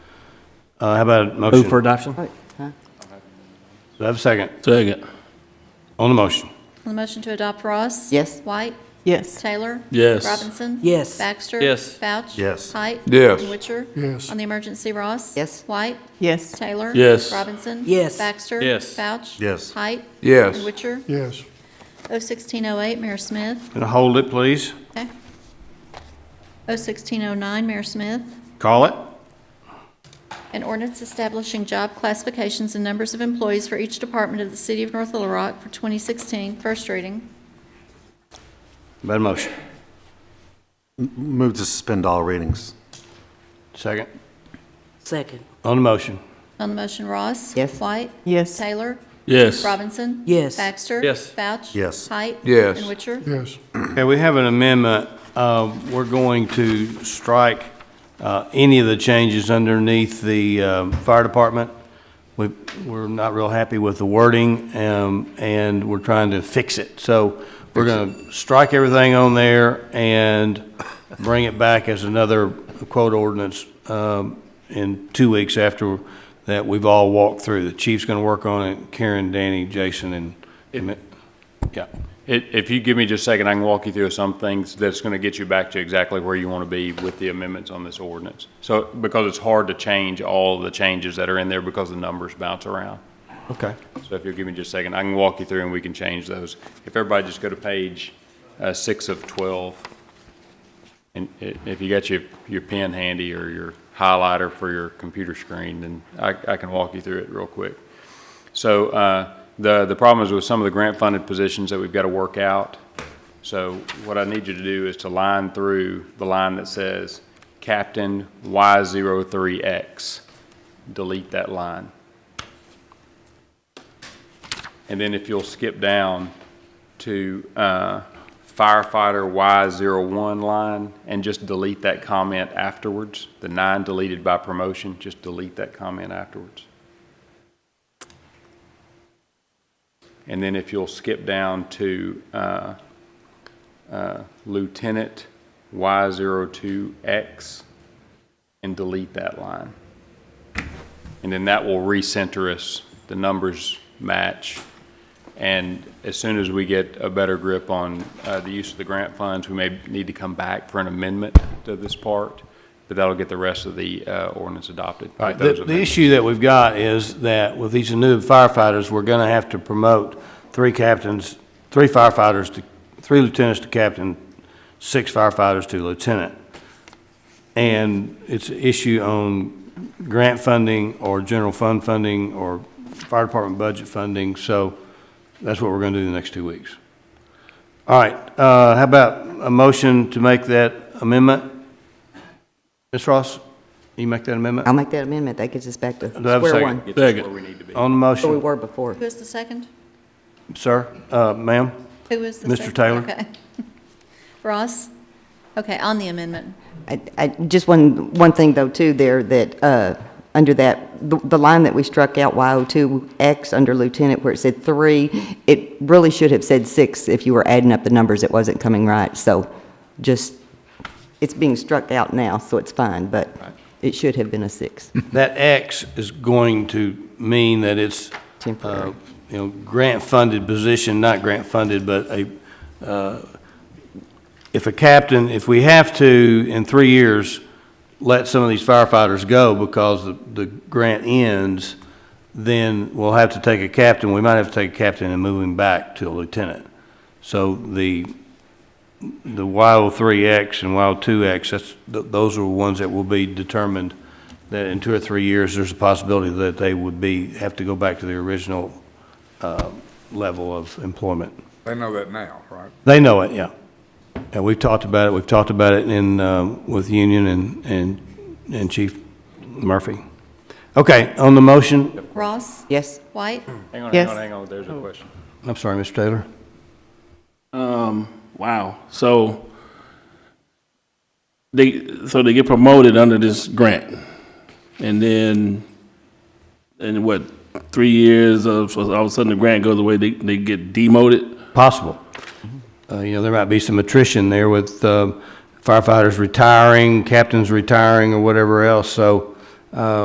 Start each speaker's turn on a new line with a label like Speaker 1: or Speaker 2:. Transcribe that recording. Speaker 1: Uh, How about a
Speaker 2: Oh,
Speaker 1: motion?
Speaker 3: Move for adoption?
Speaker 4: vote, huh?
Speaker 1: Do I have a second?
Speaker 2: Second.
Speaker 1: On the motion?
Speaker 5: On the motion to adopt Ross?
Speaker 4: Yes.
Speaker 5: White?
Speaker 6: Yes.
Speaker 5: Taylor?
Speaker 2: Yes.
Speaker 5: Robinson?
Speaker 6: Yes.
Speaker 5: Baxter?
Speaker 2: Yes.
Speaker 5: Vouch?
Speaker 1: Yes.
Speaker 5: Height?
Speaker 7: Yes.
Speaker 5: Witcher?
Speaker 8: Yes.
Speaker 5: On the emergency, Ross?
Speaker 4: Yes.
Speaker 5: White?
Speaker 6: Yes.
Speaker 5: Taylor?
Speaker 2: Yes.
Speaker 5: Robinson?
Speaker 6: Yes.
Speaker 5: Baxter?
Speaker 2: Yes.
Speaker 5: Vouch?
Speaker 1: Yes.
Speaker 5: Height?
Speaker 7: Yes.
Speaker 5: Witcher?
Speaker 8: yes,
Speaker 5: O sixteen oh eight, Mayor Smith.
Speaker 1: Gonna hold it, please.
Speaker 5: Okay. O sixteen oh nine, Mayor Smith.
Speaker 1: Call it.
Speaker 5: An ordinance establishing job classifications and numbers of employees for each department of the City of North Little Rock for 2016, first reading.
Speaker 1: How About a motion?
Speaker 9: Move to suspend all readings.
Speaker 1: Second.
Speaker 6: Second.
Speaker 1: On the motion?
Speaker 5: On the motion, Ross?
Speaker 4: Yes.
Speaker 5: White?
Speaker 6: Yes.
Speaker 5: Taylor?
Speaker 2: Yes.
Speaker 5: Robinson?
Speaker 6: Yes.
Speaker 5: Baxter?
Speaker 2: Yes.
Speaker 5: Vouch?
Speaker 9: Yes.
Speaker 5: Height?
Speaker 7: Yes.
Speaker 5: And Witcher?
Speaker 8: yes,
Speaker 1: Okay, we have an amendment. Uh, We're going to strike uh, any of the changes underneath the um, fire department. We- We're not real happy with the wording, um, and we're trying to fix it. So we're going to strike everything on there and bring it back as another quote ordinance um, in two weeks after that we've all walked through. The chief's going to work on it, Karen, Danny, Jason, and, yeah.
Speaker 10: If, if you give me just a second, I can walk you through some things that's going to get you back to exactly where you want to be with the amendments on this ordinance. So, because it's hard to change all the changes that are in there because the numbers bounce around.
Speaker 1: Okay.
Speaker 10: So if you'll give me just a second, I can walk you through and we can change those. If everybody just go to page uh, six of 12. And i- if you got your, your pen handy or your highlighter for your computer screen, then I, I can walk you through it real quick. So uh, the, the problem is with some of the grant-funded positions that we've got to work out. So what I need you to do is to line through the line that says Captain Y03X. Delete that line. And then if you'll skip down to uh, firefighter Y01 line and just delete that comment afterwards, the nine deleted by promotion, just delete that comment afterwards. And then if you'll skip down to uh, uh, Lieutenant Y02X and delete that line. And then that will recenter us, the numbers match. And as soon as we get a better grip on uh, the use of the grant funds, we may need to come back for an amendment to this part, but that'll get the rest of the uh, ordinance adopted. with
Speaker 1: All right, the,
Speaker 10: those
Speaker 1: the
Speaker 10: amendments.
Speaker 1: issue that we've got is that with these new firefighters, we're gonna have to promote three captains, three firefighters to, three lieutenants to captain, six firefighters to lieutenant. And it's an issue on grant funding or general fund funding or fire department budget funding, so that's what we're gonna do the next two weeks. All right, uh, how about a motion to make that amendment? Ms. Ross, you make that amendment?
Speaker 4: I'll make that amendment. That gets us back to
Speaker 1: I have a
Speaker 4: square
Speaker 1: second?
Speaker 4: one.
Speaker 10: Get us where
Speaker 2: Second.
Speaker 10: we need to be.
Speaker 1: On the
Speaker 4: Where we
Speaker 1: motion,
Speaker 4: were before.
Speaker 5: Who is the second?
Speaker 1: sir, uh, ma'am,
Speaker 5: Who was the
Speaker 1: Mr.
Speaker 5: second?
Speaker 1: Taylor.
Speaker 5: Okay. Ross? Okay, on the amendment.
Speaker 4: I, I, just one, one thing though too there that, uh, under that, the, the line that we struck out Y02X under lieutenant where it said three, it really should have said six if you were adding up the numbers. It wasn't coming right. So just, it's being struck out now, so it's fine, but it should have been a six.
Speaker 1: that X is going to mean that it's, uh,
Speaker 4: Temporary.
Speaker 1: you know, grant-funded position, not grant-funded, but a, uh, if a captain, if we have to, in three years, let some of these firefighters go because the, the grant ends, then we'll have to take a captain, we might have to take a captain and move him back to a lieutenant. So the, the Y03X and Y02X, that's, th- those are ones that will be determined, that in two or three years, there's a possibility that they would be, have to go back to their original uh, level of employment.
Speaker 7: They know that now, right?
Speaker 1: They know it, yeah. And we've talked about it, we've talked about it in, um, with Union and, and and Chief Murphy. Okay, on the motion,
Speaker 5: Ross?
Speaker 4: Yes?
Speaker 5: White?
Speaker 10: Hang on, hang
Speaker 6: Yes.
Speaker 10: on, hang on, there's a question.
Speaker 1: I'm sorry, Mr. Taylor.
Speaker 2: Wow. So they so they get promoted under this grant, and then in what three years of so all of a sudden the grant goes away, they they get demoted.
Speaker 1: Possible. Uh, You know, there might be some attrition there with uh, firefighters retiring, captains retiring, or whatever else, so